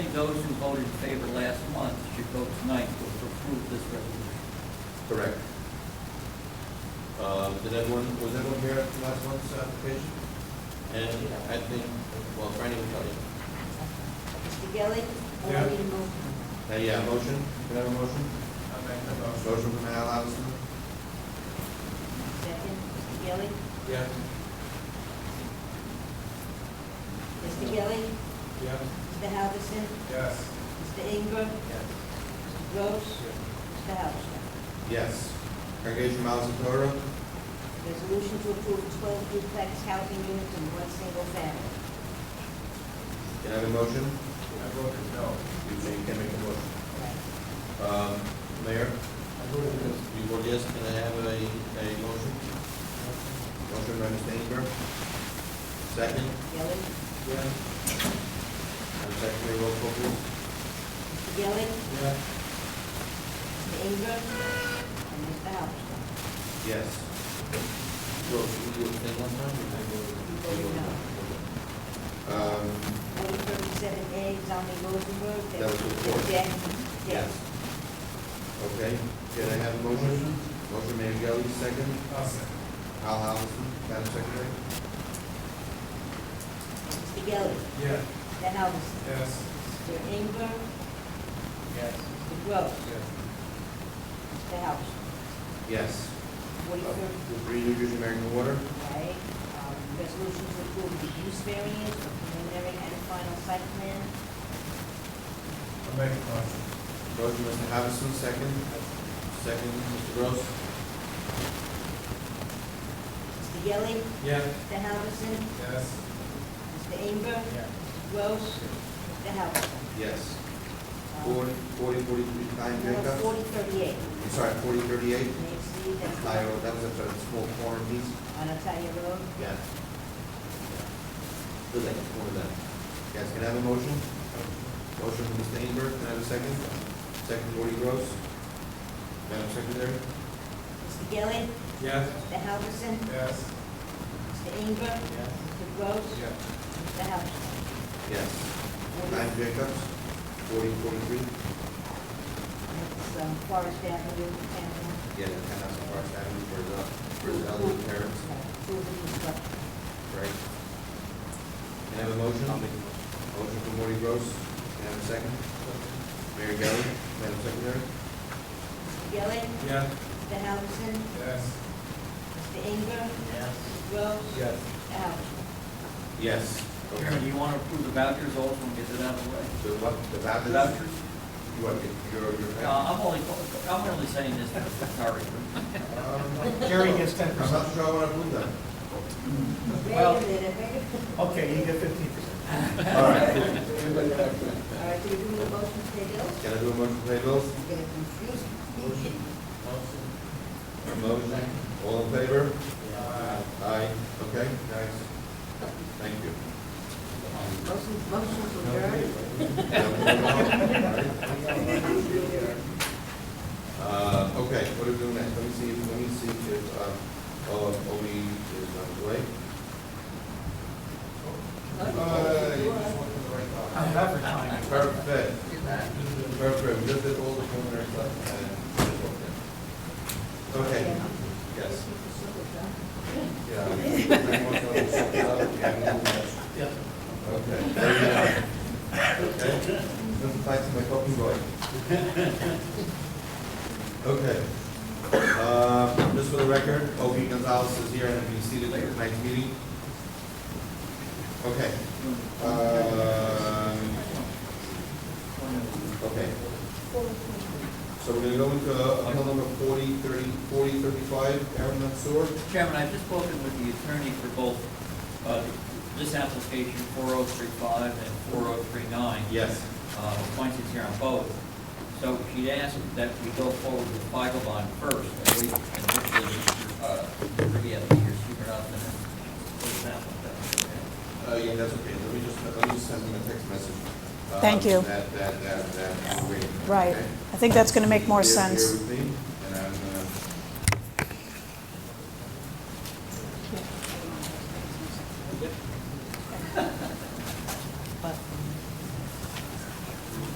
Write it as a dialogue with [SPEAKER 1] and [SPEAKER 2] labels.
[SPEAKER 1] those who voted in favor last month should vote tonight to approve this resolution.
[SPEAKER 2] Correct. Um, Did everyone, was everyone here at last month's application? And I think, well, Franny will tell you.
[SPEAKER 3] Mr. Gilli? Allow
[SPEAKER 4] Yeah.
[SPEAKER 3] me to move.
[SPEAKER 2] Now, Uh, yeah, motion, can I have a motion?
[SPEAKER 4] I'll make the motion.
[SPEAKER 2] Motion from Al Alverson?
[SPEAKER 3] Second, Mr. Gilli?
[SPEAKER 4] Yes.
[SPEAKER 3] Mr. Gilli?
[SPEAKER 4] Yes.
[SPEAKER 3] Mr. Halverson?
[SPEAKER 4] Yes.
[SPEAKER 3] Mr. Ingram? Mr. Gross? Mr. Halverson?
[SPEAKER 2] Yes. Congregation Miles and Torah?
[SPEAKER 3] Resolution to approve twelve duplex housing units in one single family.
[SPEAKER 2] Can I have a motion?
[SPEAKER 4] I voted no.
[SPEAKER 2] You may- you can make a motion. Um, Mayor?
[SPEAKER 4] I voted yes.
[SPEAKER 2] You vote yes, can I have a, a motion? Motion by Mr. Inger. Second?
[SPEAKER 3] Gilli?
[SPEAKER 4] Yes.
[SPEAKER 2] And second, may roll call please?
[SPEAKER 3] Mr. Gilli?
[SPEAKER 4] Yes.
[SPEAKER 3] Mr. Ingram? And Mr. Halverson?
[SPEAKER 2] Yes. Well, we will take one time, and I
[SPEAKER 3] You voted
[SPEAKER 2] will- Um,
[SPEAKER 3] Order thirty-seven A, Zalman Rosenberg.
[SPEAKER 2] That was before.
[SPEAKER 3] Yes.
[SPEAKER 2] yes. Okay, can I have a motion? Motion Mayor Gelli, second.
[SPEAKER 4] I'll second.
[SPEAKER 2] Al Halverson, Madam Secretary?
[SPEAKER 3] Mr. Gilli?
[SPEAKER 4] Yes.
[SPEAKER 3] Mr. Halverson?
[SPEAKER 4] Yes.
[SPEAKER 3] Mr. Ingram?
[SPEAKER 4] Yes.
[SPEAKER 3] Mr. Gross?
[SPEAKER 4] Yes.
[SPEAKER 3] Mr. Halverson?
[SPEAKER 2] Yes. Uh,
[SPEAKER 3] Order thirty
[SPEAKER 2] Three New Jersey American Water?
[SPEAKER 3] Okay, um, resolution to approve the use variance for preliminary and final site plan.
[SPEAKER 4] I'll make the motion.
[SPEAKER 2] Motion Mr. Halverson, second. Second, Mr. Gross?
[SPEAKER 3] Mr. Yelli,
[SPEAKER 4] Yes.
[SPEAKER 3] Mr. Halverson,
[SPEAKER 4] Yes.
[SPEAKER 3] Mr. Inger,
[SPEAKER 4] Yes.
[SPEAKER 3] Mr. Gross, Mr. Halverson.
[SPEAKER 2] Yes.
[SPEAKER 3] Um,
[SPEAKER 2] Forty, forty, forty-three, nine
[SPEAKER 3] Number
[SPEAKER 2] Jacob?
[SPEAKER 3] forty thirty-eight,
[SPEAKER 2] I'm sorry, forty thirty-eight?
[SPEAKER 3] may exceed that's
[SPEAKER 2] I, oh, that was a sort of small corner piece?
[SPEAKER 3] on Natalia Road.
[SPEAKER 2] Yes. Good, like, one of them. Yes, can I have a motion? Motion from Mr. Inger, can I have a second? Second, Gordy Gross. Madam Secretary?
[SPEAKER 3] Mr. Yelli,
[SPEAKER 4] Yes.
[SPEAKER 3] Mr. Halverson,
[SPEAKER 4] Yes.
[SPEAKER 3] Mr. Inger,
[SPEAKER 4] Yes.
[SPEAKER 3] Mr. Gross,
[SPEAKER 4] Yes.
[SPEAKER 3] Mr. Halverson.
[SPEAKER 2] Yes. Nine
[SPEAKER 3] Order-
[SPEAKER 2] Jacobs, forty forty-three?
[SPEAKER 3] That's, um, Forest Avenue, and,
[SPEAKER 2] Yeah, the townhouse on Forest Avenue for the, for
[SPEAKER 3] Approve
[SPEAKER 2] the elderly parents,
[SPEAKER 3] the construction.
[SPEAKER 2] right? Can I have a motion? Motion from Gordy Gross, can I have a second? Mary Gelli, Madam Secretary?
[SPEAKER 3] Mr. Yelli,
[SPEAKER 4] Yes.
[SPEAKER 3] Mr. Halverson,
[SPEAKER 4] Yes.
[SPEAKER 3] Mr. Inger,
[SPEAKER 4] Yes.
[SPEAKER 3] Mr. Gross,
[SPEAKER 4] Yes.
[SPEAKER 3] Mr. Halverson.
[SPEAKER 2] Yes.
[SPEAKER 1] Do
[SPEAKER 2] Okay.
[SPEAKER 1] you want to approve the vouchers also and get it out of the way?
[SPEAKER 2] So what, the
[SPEAKER 1] The
[SPEAKER 2] vouchers?
[SPEAKER 1] vouchers?
[SPEAKER 2] You want, your your
[SPEAKER 1] Uh, I'm only, I'm only saying this, sorry.
[SPEAKER 5] Jerry gets ten
[SPEAKER 2] I'm
[SPEAKER 5] percent.
[SPEAKER 2] not sure I want to move them.
[SPEAKER 1] Well-
[SPEAKER 3] Wait a minute, wait a minute.
[SPEAKER 5] Okay, you get fifteen percent.
[SPEAKER 2] All right.
[SPEAKER 3] All right, so you're doing the motion to pay bills?
[SPEAKER 2] Can I do a motion to pay bills?
[SPEAKER 3] It's getting confusing.
[SPEAKER 2] A motion. All in favor?
[SPEAKER 4] Uh,
[SPEAKER 2] Aye. Okay, nice. Thank you.
[SPEAKER 3] Motion, motion to
[SPEAKER 2] Now we
[SPEAKER 3] adjourn.
[SPEAKER 2] move on, all right? Uh, okay, what do we do next? Let me see, if- let me see if, um, oh, oh, we, is on the way. Uh, you just went to the right spot.
[SPEAKER 5] I'm advertising.
[SPEAKER 2] Perfect. Perfect, just did all the preliminary stuff and just walked in. Okay, yes, yeah.
[SPEAKER 5] Yeah.
[SPEAKER 2] Okay. there you go. Okay, Just thanks to my talking boy. Okay. Uh, just for the record, Obi Gonzalez is here and will be seated at tonight's meeting. Okay, um, Okay. So we're gonna go into uh, appeal number forty, thirty, forty, thirty-five, Aaron Mansour.
[SPEAKER 1] Mr. Chairman, I've just spoken with the attorney for both, uh, this application, four oh three five and four oh three nine.
[SPEAKER 2] Yes.
[SPEAKER 1] uh, appointed here on both. So she'd asked that we go forward with Feigelbaum first, and we, and hopefully, uh, Ruby, I think you're super up and, for example.
[SPEAKER 2] Uh, yeah, that's okay, let me just, let me just send him a text message. uh,
[SPEAKER 6] Thank you.
[SPEAKER 2] That, that, that, that, we're waiting.
[SPEAKER 6] Right.
[SPEAKER 2] Okay?
[SPEAKER 6] I think that's going to make more
[SPEAKER 2] Bear- bear
[SPEAKER 6] sense.
[SPEAKER 2] with me.